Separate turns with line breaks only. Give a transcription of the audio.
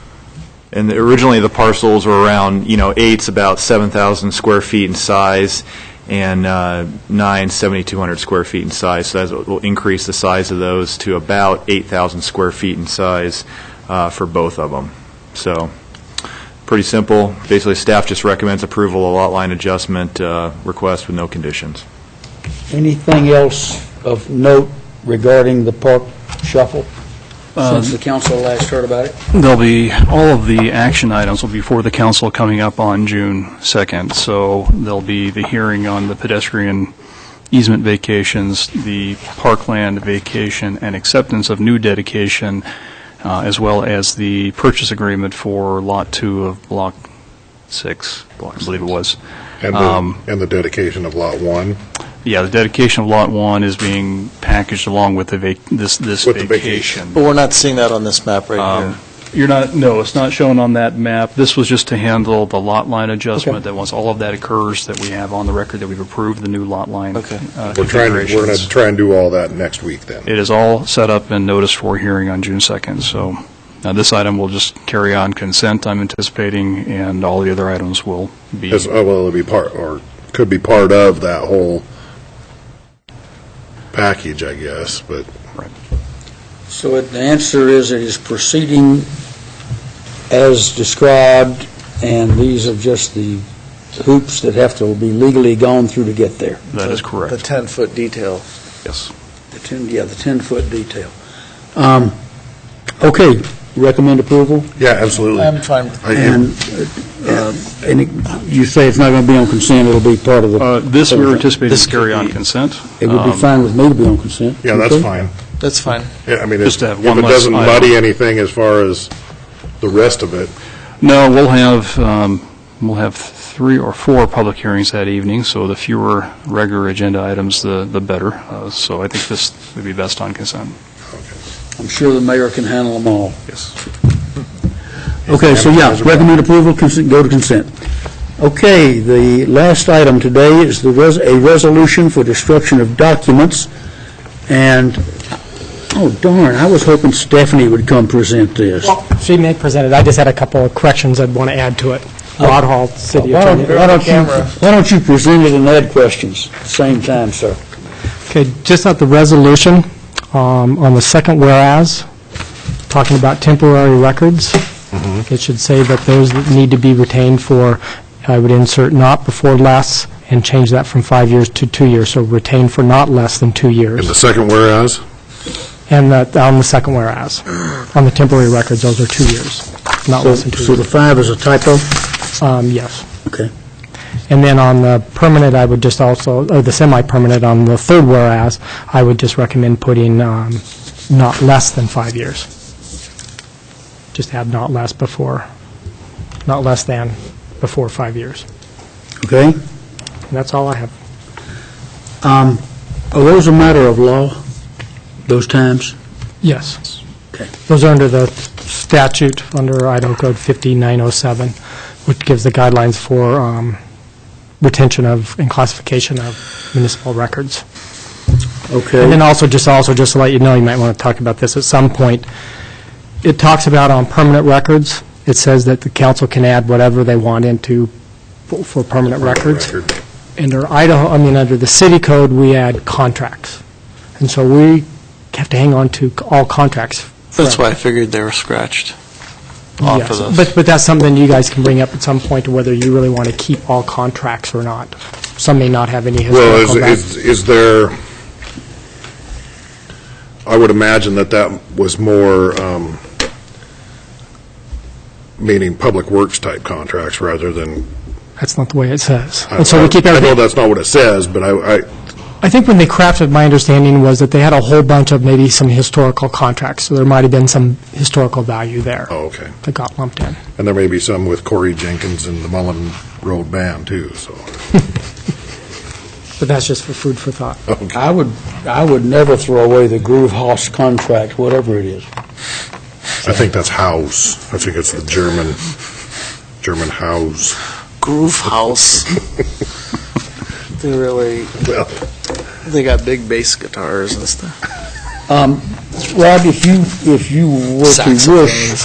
And the- originally, the parcels were around, you know, eight's about 7,000 square feet in size, and uh, nine's 7,200 square feet in size, so that will increase the size of those to about 8,000 square feet in size uh, for both of them. So, pretty simple. Basically, staff just recommends approval of lot line adjustment uh, request with no conditions.
Anything else of note regarding the park shuffle since the council last heard about it?
There'll be, all of the action items will be for the council coming up on June 2nd. So there'll be the hearing on the pedestrian easement vacations, the parkland vacation and acceptance of new dedication, uh, as well as the purchase agreement for Lot 2 of Block 6, I believe it was.
And the,
Um,
and the dedication of Lot 1
Yeah, the dedication of Lot 1 is being packaged along with the vac, this, this
With the vacation.
vacation.
But we're not seeing that on this map right
Um,
here.
You're not, no, it's not shown on that map. This was just to handle the lot line adjustment,
Okay.
that once all of that occurs, that we have on the record that we've approved the new lot line uh,
Okay.
We're trying, to- we're going to
configurations.
try and do all that next week then.
It is all set up and noticed for hearing on June 2nd, so uh, this item will just carry on consent, I'm anticipating, and all the other items will be,
As, oh, well, it'll be part, or could be part of that whole package, I guess, but
So it- the answer is it is proceeding as described, and these are just the hoops that have to be legally gone through to get there.
that is
The
correct,
10-foot detail.
yes.
The 10, yeah, the 10-foot detail. Um, Okay, recommend approval?
yeah, absolutely.
I'm fine with
I-
And, uh, and it- you say it's not going to be on consent, it'll be part of
Uh,
the...
This we're anticipating
This
to carry
could
on
be-
consent.
It would be
Um,
fine with me to be on consent.
Yeah, that's
Okay?
fine.
That's fine.
Yeah, I mean,
Just
if
to
if
have one
it
less
doesn't
item.
muddy anything as far as the rest of it,
No, we'll have, um, we'll have three or four public hearings that evening, so the fewer regular agenda items, the the better. Uh, So I think this would be best on consent.
I'm sure the mayor can handle them all.
Yes.
Okay, so yeah, recommend approval, consent, go to consent. Okay, the last item today is the, res- a resolution for destruction of documents, and, oh darn, I was hoping Stephanie would come present this.
She may present it, I just had a couple of corrections I'd want to add to it. Rod Hall, city
Why don't-
attorney.
why don't you, why don't you present it and add questions at the same time, sir?
Okay, just at the resolution, um, on the second whereas, talking about temporary records, it should say that those that need to be retained for, I would insert not before less, and change that from five years to two years, so retain for not less than two
in the
years.
second whereas,
And that, on the second whereas, on the temporary records, those are two years, not
So
less than two years.
so the five is a typo?
Um, Yes.
Okay.
And then on the permanent, I would just also, or the semi-permanent, on the third whereas, I would just recommend putting um, not less than five years. Just add not less before, not less than before five years.
Okay?
And that's all I have.
Um, Are those a matter of law, those times?
Yes.
Okay.
Those are under the statute, under Idaho Code 5907, which gives the guidelines for um, retention of and classification of municipal records.
Okay.
And then also, just also, just to let you know, you might want to talk about this at some point. It talks about on permanent records, it says that the council can add whatever they want into, for for permanent records.
record.
Under Idaho, I mean, under the city code, we add contracts. And so we have to hang on to all contracts.
That's
forever.
why I figured they were scratched off
Yes.
of
But,
this.
but that's something you guys can bring up at some point, whether you really want to keep all contracts or not. Some may not have any
Well, is,
historical back.
is, is there, I would imagine that that was more, um, meaning public works type contracts rather than.
That's not the way it says. And so we keep
I- I-
everything.
I know that's not what it says, but I, I,
I think when they crafted, my understanding was that they had a whole bunch of maybe some historical contracts, so there might have been some historical value there
oh, okay.
that got lumped in.
And there may be some with Corey Jenkins and the Mullen Road Band too, so.
But that's just for food for thought.
I would, I would never throw away the Groove House contract, whatever it is.
I think that's House. I think it's the German, German House.
Groove House. They really,
Well,
they got big bass guitars and stuff.
Um, Rob, if you, if you were to
Saxophones.
wish,